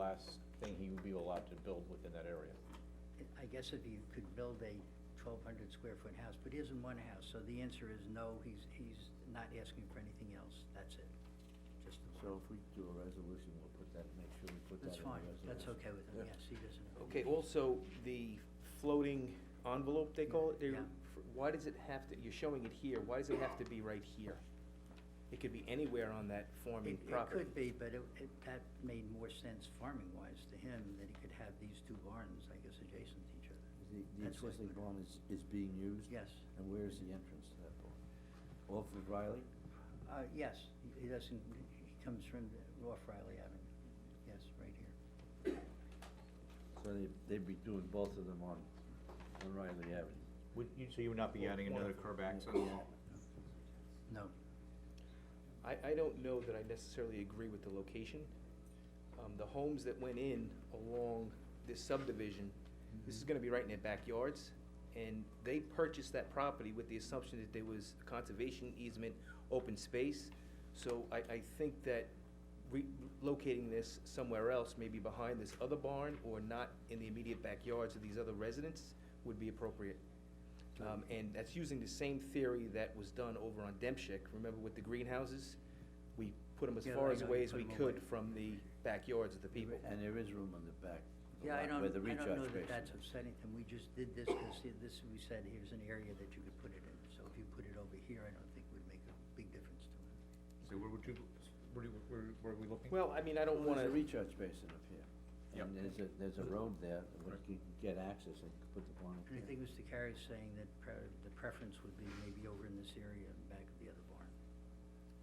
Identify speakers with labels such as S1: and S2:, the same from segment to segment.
S1: last thing he would be allowed to build within that area.
S2: I guess if you could build a twelve hundred square foot house, but he isn't one house, so the answer is no, he's, he's not asking for anything else, that's it. Just,
S3: So if we do a resolution, we'll put that, make sure we put that
S2: that's
S3: in the
S2: fine,
S3: resolution.
S2: that's okay with him,
S3: Yeah.
S2: yes, he doesn't.
S4: Okay, also, the floating envelope, they call it, they-
S2: Yeah.
S4: why does it have to, you're showing it here, why does it have to be right here? It could be anywhere on that forming
S2: It, it
S4: property.
S2: could be, but it, it, that made more sense farming wise to him, that he could have these two barns, I guess, adjacent to each other.
S3: The, the
S2: That's what-
S3: existing barn is, is being used?
S2: Yes.
S3: And where is the entrance to that barn? Off of Riley?
S2: Uh, yes, he- he doesn't, he comes from North Riley Avenue, yes, right here.
S3: So they, they'd be doing both of them on, on Riley Avenue.
S1: Would you, so you would not be adding another curb access?
S2: No,
S4: I, I don't know that I necessarily agree with the location. Um, the homes that went in along this subdivision, this is gonna be right in their backyards, and they purchased that property with the assumption that there was conservation easement, open space. So I, I think that relocating this somewhere else, maybe behind this other barn, or not in the immediate backyards of these other residents, would be appropriate. Um, and that's using the same theory that was done over on Demchick, remember with the greenhouses? We put them as
S2: Yeah,
S4: far
S2: I
S4: as
S2: know,
S4: away
S2: you
S4: as
S2: put
S4: we
S2: 'em
S4: could
S2: away.
S4: from the backyards of the people.
S3: And there is room in the back, the
S2: yeah, I don't,
S3: lot where the
S2: I
S3: recharge basin.
S2: don't know that that's upsetting to him, we just did this, because this, we said, here's an area that you could put it in, so if you put it over here, I don't think would make a big difference to him.
S1: So where would you, where, do- where, where are we looking?
S4: Well, I mean, I don't
S3: Well,
S4: wanna,
S3: There's a recharge basin up here.
S1: Yep.
S3: And there's a, there's a road there, where you can get access and put the barn up
S2: And I
S3: there.
S2: think Mr. Carey's saying that pre- the preference would be maybe over in this area and back of the other barn,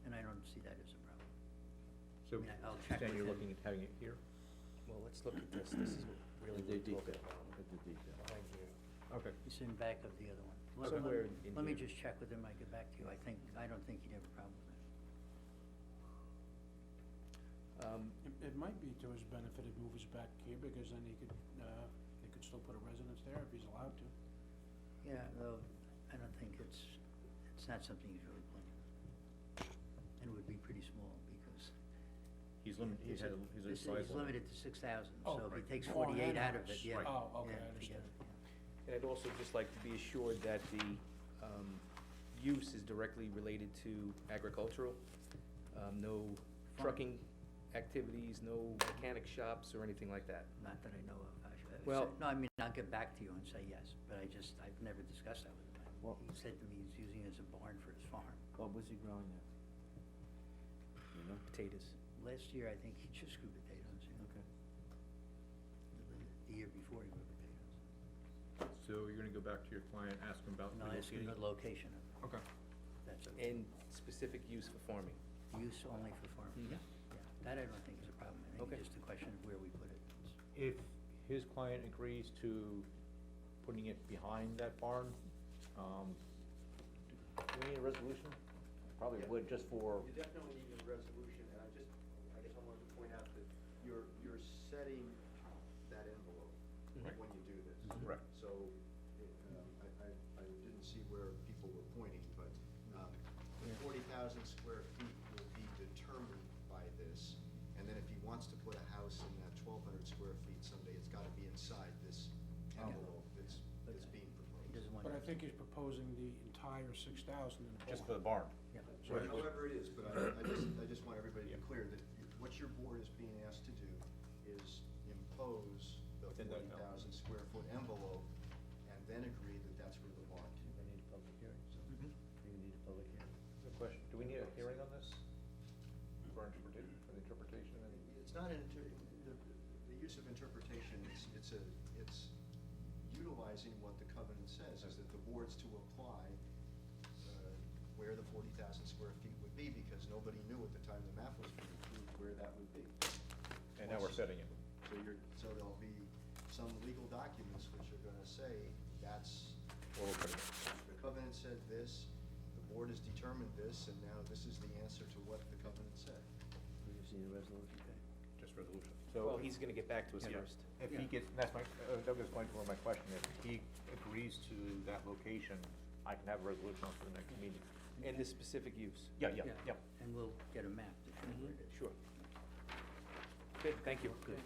S2: and I don't see that as a problem.
S1: So,
S2: Yeah, I'll check
S1: Stan,
S2: with
S1: you're
S2: him.
S1: looking at having it here?
S4: well, let's look at this, this is what really
S3: With the
S4: what we're talking
S3: detail, with the detail.
S4: about. Behind here.
S1: Okay.
S2: It's in back of the other one. Let- let-
S4: Somewhere in
S2: Let me
S4: here.
S2: just check with him, I get back to you, I think, I don't think he'd have a problem with that.
S4: Um,
S5: It, it might be to his benefit if moves back here, because then he could, uh, they could still put a residence there if he's allowed to.
S2: Yeah, though, I don't think it's, it's not something he's really planning. And it would be pretty small because.
S1: He's limited, he's
S2: it's a-
S1: had, a-
S2: this-
S1: he's a size
S2: He's
S1: limit.
S2: limited to six thousand,
S5: Oh,
S2: so if he
S1: right.
S2: takes
S5: Oh,
S2: forty-eight
S5: and
S2: out of it,
S5: that's-
S2: yeah.
S1: Right.
S5: Oh, okay,
S2: yeah,
S5: I
S2: forget
S5: understand.
S2: it, yeah.
S4: And I'd also just like to be assured that the, um, use is directly related to agricultural. Um, no trucking activities, no mechanic shops or anything like that.
S2: Not that I know of. I should- I would
S4: Well-
S2: say- No, I mean, I'll get back to you and say yes, but I just, I've never discussed that with him.
S3: Well-
S2: He said to me he's using it as a barn for his farm.
S3: What was he growing there? You know?
S4: Potatoes.
S2: Last year, I think he just grew potatoes, you know,
S3: Okay.
S2: the- the year before he grew potatoes.
S1: So you're gonna go back to your client, ask him about
S2: No, it's a
S1: relocating?
S2: good location, of it.
S1: Okay.
S2: that's okay.
S4: And specific use for farming.
S2: Use only for farming,
S4: Mhm.
S2: yeah, yeah. That I don't think is a problem. I think
S4: Okay.
S2: it's just a question of where we put it. It's-
S1: If his client agrees to putting it behind that barn, um, do we need a resolution?
S3: Oh,
S1: Probably
S6: Yeah.
S1: would, just for,
S6: You definitely need a resolution, and I just, I guess I wanted to point out that you're, you're setting that envelope
S4: Right.
S6: when you do this.
S4: Mm-hmm.
S1: Correct.
S6: So, it, um, I, I, I didn't see where people were pointing, but, um, the forty thousand square feet will be determined by this. And then if he wants to put a house in that twelve hundred square feet someday, it's gotta be inside this
S2: Okay.
S6: envelope that's, that's
S2: Okay.
S6: being
S2: He
S6: proposed.
S2: doesn't want.
S5: But I
S2: it-
S5: think he's proposing the entire six thousand in the
S1: just for the
S5: barn.
S1: barn?
S2: Yeah.
S6: So
S1: Right.
S6: however it is, but I, I just, I just want everybody to
S1: Yeah.
S6: be clear that what your board is being asked to do is impose the
S1: Within that
S6: forty
S1: envelope.
S6: thousand square foot envelope and then agree that that's where the bond
S3: Do we need a public hearing?
S2: Mm-hmm.
S3: Do we need a public hearing?
S1: Good question. Do we need a hearing on this? For interpretation, for the interpretation and?
S6: It's not an inter, the, the use of interpretation, it's, it's a, it's utilizing what the covenant says, is that the board's to apply uh, where the forty thousand square feet would be, because nobody knew at the time the map was being approved where that would be.
S1: And now we're setting it.
S6: So you're, so there'll be some legal documents which are gonna say, that's,
S1: Or we're putting it.
S6: the covenant said this, the board has determined this, and now this is the answer to what the covenant said.
S3: Do you see the resolution?
S1: Just resolution.
S4: Well, he's gonna get back to us
S1: Yeah.
S4: first.
S1: If he gets, that's my, uh, Douglas point where my question, if he agrees to that location, I can have a resolution on for the next meeting.
S4: And the specific use.
S1: Yeah, yeah, yeah. Mm-hmm.
S2: And we'll get a map to show where it is.
S4: Sure. Good, thank you.
S2: Good.